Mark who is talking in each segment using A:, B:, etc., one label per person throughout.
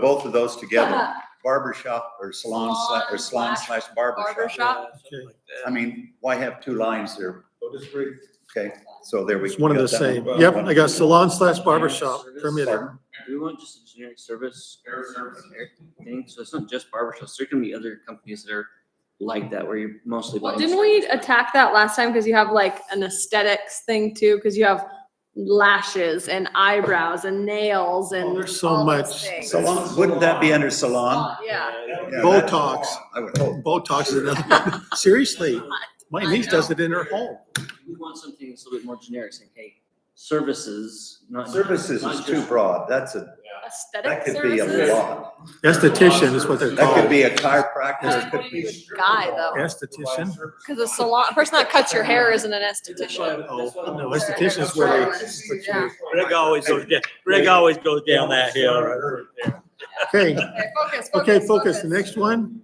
A: both of those together,
B: Uh-huh.
A: barber shop or salon slash, or salon slash barber
B: Barber
A: shop.
B: shop.
C: Okay.
A: I mean, why have two lines there? Okay, so there we.
C: It's one of the
A: got that
C: same.
A: one.
C: Yep, I got salon slash barber shop permitted.
A: Pardon?
D: Do we want just a generic service thing? So it's not just barbershops. There can be other companies that are like that where you're mostly.
B: Well,
D: buying
B: didn't we
D: service.
B: attack that last time? Cause you have like an aesthetics thing too, cause you have lashes and eyebrows and nails
C: Oh,
B: and.
C: there's so
B: all those
C: much.
B: things. Uh,
A: Salon, wouldn't that be under salon?
B: Yeah.
A: Yeah, Oh. that's-
C: Botox,
A: I would hope.
C: Botox is another, seriously, my
B: I
C: niece
B: know.
C: does it in her home.
D: We want something that's a little bit more generic, saying, hey, services, not.
A: Services is
D: not
A: too
D: just-
A: broad. That's a, that
B: Aesthetic
A: could be a
B: services.
A: lot.
C: Esthetician is what they're
A: That could
C: called.
A: be a chiropractor. It
B: That's
A: could
B: what you
A: be.
B: would guy though,
C: Esthetician?
B: cause a salon, a person that cuts your hair isn't an
D: That's why-
B: esthetician.
C: Oh,
D: that's why-
C: no,
B: They're a
C: esthetician is where
B: Yeah.
E: Rick always goes down, Rick always goes down that hill.
C: they, okay,
B: Okay, focus,
C: okay, focus, the next one.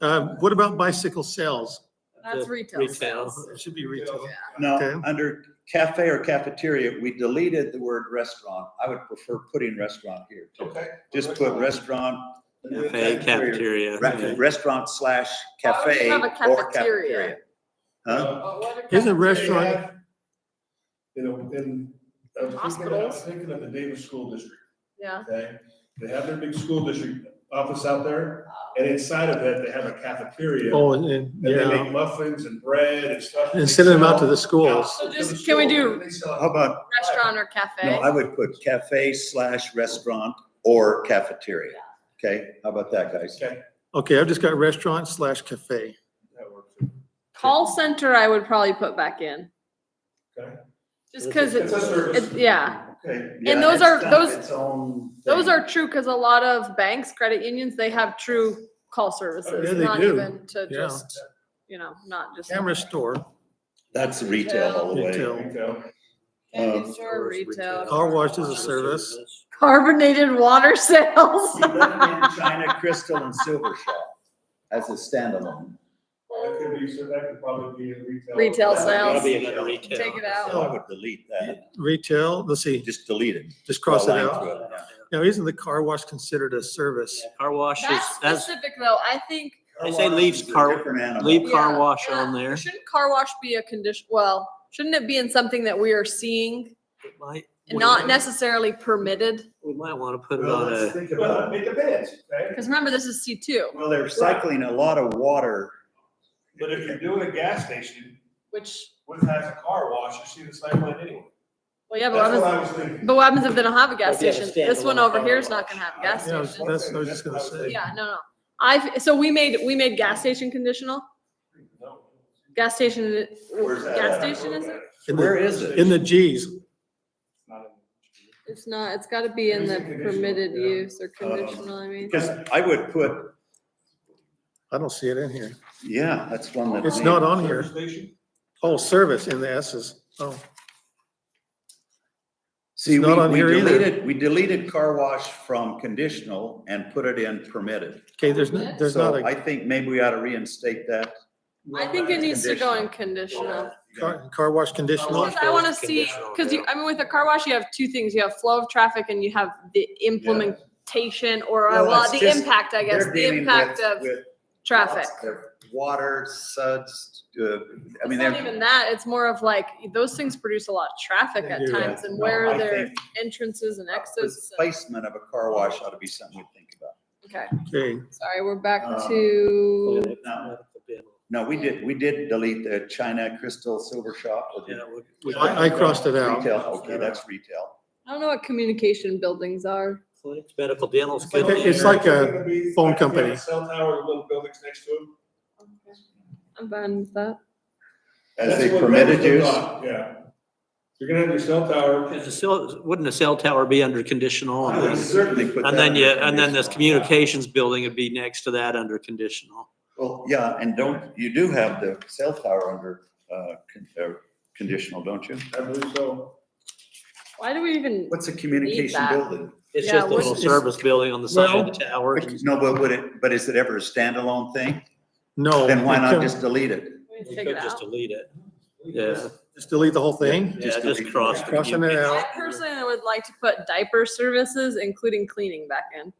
C: Uh, what about bicycle sales?
B: That's
E: the
B: retail
E: retail.
B: sales.
C: It should be retail.
A: No,
C: Okay.
A: under cafe or cafeteria, we deleted the word restaurant. I would prefer putting restaurant here. too. Just put restaurant.
E: Cafe, cafeteria.
A: Re- Restaurant slash
B: Why would
A: cafe
B: you have a
A: or
B: cafeteria?
A: cafeteria. Huh?
C: Isn't restaurant,
F: You know, in, I was thinking, I was
B: Hospitals.
F: thinking of the Davis School District,
B: Yeah.
F: okay? They have their big school district office out there, and inside of it, they have a cafeteria.
C: oh, and- and,
F: And they
C: yeah,
F: make muffins and bread and stuff.
C: and sending them out to the schools.
B: So just- can we do-
A: How about,
B: Restaurant or
A: no,
B: cafe.
A: I would put cafe slash restaurant or cafeteria. Okay, how about that, guys?
F: Okay.
C: Okay, I've just got restaurant slash cafe.
F: that works.
B: Call center, I would probably put back in.
F: Okay.
B: Just cause
F: It's
B: it's,
F: a
B: it-
F: service.
B: yeah.
F: Okay.
A: Yeah,
B: those
A: it's
B: are-
A: not
B: those-
A: its own
B: those
A: thing.
B: are true, cause a lot of banks, credit unions, they have true call services,
C: Yeah, they
B: not
C: do.
B: even to
C: Yeah.
B: just, you know, not just.
C: Camera store,
A: That's retail all the way.
C: Retail.
F: Retail.
B: Candy
A: um,
B: store, retail,
C: car wash is a service.
B: carbonated water sales.
A: China Crystal and Silver Shop as a standalone.
F: That could be, so that could probably be a retail.
B: Retail
F: That could
B: sales.
E: Probably another retail.
B: Take it
A: So Oh, I
B: out.
A: would delete that,
C: Retail, let's see,
A: just delete it.
C: just cross it
A: Line
C: out.
A: through it, yeah.
C: Now, isn't the car wash considered a service?
E: Car wash is,
B: That's
E: that's,
B: specific though, I think.
E: They say leaves
A: Car wash is a
E: car-
A: different animal.
E: leave
B: Yeah,
E: car wash
B: yeah.
E: on there.
B: Shouldn't car wash be a condition, well, shouldn't it be in something that we are seeing
E: It might-
B: and not necessarily permitted?
E: We might want to put it
A: Well,
E: on
A: let's
E: a,
A: think
F: Well,
A: about it.
F: it depends, okay?
B: Cause remember, this is C two,
A: Well, they're cycling a lot of water.
F: But if you're doing a gas station,
B: which,
F: what has a car wash, you see the same one anyway.
B: well, yeah,
F: That's
B: but what
F: what
B: happens,
F: I was thinking.
B: but what happens if they don't have a gas
E: Like, yeah,
B: station?
E: a
B: This one
E: standalone
B: over
E: car
B: here is
E: wash.
B: not gonna have gas
C: Yeah,
B: stations.
C: that's what I was just gonna say.
B: Yeah, no, no. I've, so we made, we made gas station conditional, gas station,
A: Where's that
B: gas
A: at?
B: station is it?
C: In
A: Where
C: the,
A: is it?
C: in the Gs,
B: It's not, it's gotta be in the
F: Using conditional,
B: permitted
F: yeah.
B: use or conditional, I mean.
A: Uh, Because I would put,
C: I don't see it in here.
A: yeah, that's one that.
C: It's
A: may-
C: not on here.
F: Station?
C: Oh, service in the S's. Oh,
A: See,
C: it's
A: we
C: not on
A: we
C: here either.
A: deleted, we deleted car wash from conditional and put it in permitted.
C: okay, there's, no- there's not
A: So
C: a
A: I think maybe we ought to reinstate that.
B: I think it needs to go in conditional.
C: car, car wash conditional.
B: Because I want to see, because you, I mean, with a car wash, you have two things. You have flow of traffic and you have the implementation or, uh,
A: Well,
B: well,
A: it's
B: the
A: just-
B: impact, I guess,
A: They're
B: the
A: dealing
B: impact
A: with-
B: of
A: with
B: traffic.
A: lots of Water, suds, uh, I
B: It's
A: mean,
B: not
A: they're.
B: even that. It's more of like, those things produce a lot of traffic
C: They
B: at
C: do.
B: times and
A: No,
B: where
A: I
B: are their
A: think
B: entrances and exits? and-
A: Placement of a car wash ought to be something we think about.
B: Okay,
C: Okay,
B: sorry, we're back
A: Um,
B: to,
A: No, no, we did, we did delete the China Crystal Silver Shop. with
E: Yeah,
A: the
E: we- we-
C: I, I crossed it out.
A: Retail, okay, that's retail.
B: I don't know what communication buildings are.
E: clinics, medical, dental's
C: like
E: good.
C: a- it's like a phone company.
F: Cell tower, with little buildings next to it.
B: I'm fine with that.
A: As
F: That's
A: they
F: what
A: permitted
F: Rutherford
A: use,
F: thought, Yeah. You're gonna have your cell tower.
E: Because the cell, wouldn't a cell tower be under conditional?
A: I would certainly put that.
E: And then
A: under
E: you, and then this
A: conditional.
E: communications building would be next to that under conditional.
A: Well, yeah, and don't, you do have the cell tower under, uh, con- uh, conditional, don't you?
F: I believe so.
B: Why do we even,
A: What's a communication
B: that.
A: building?
E: It's
B: Yeah,
E: just a
B: what's-
E: little service building on the side of the tower.
A: No, but would it, but is it ever a standalone thing?
C: No.
A: Then why
C: it
A: not
C: couldn't-
A: just delete it?
B: we
E: You
B: take it
E: could
B: out?
E: just delete it. Yeah,
C: Just delete the whole thing?
E: yeah,
A: delete
E: just
A: it.
E: cross. the
C: Crossing it
E: communication.
C: out.
B: I personally would like to put diaper services, including cleaning back in.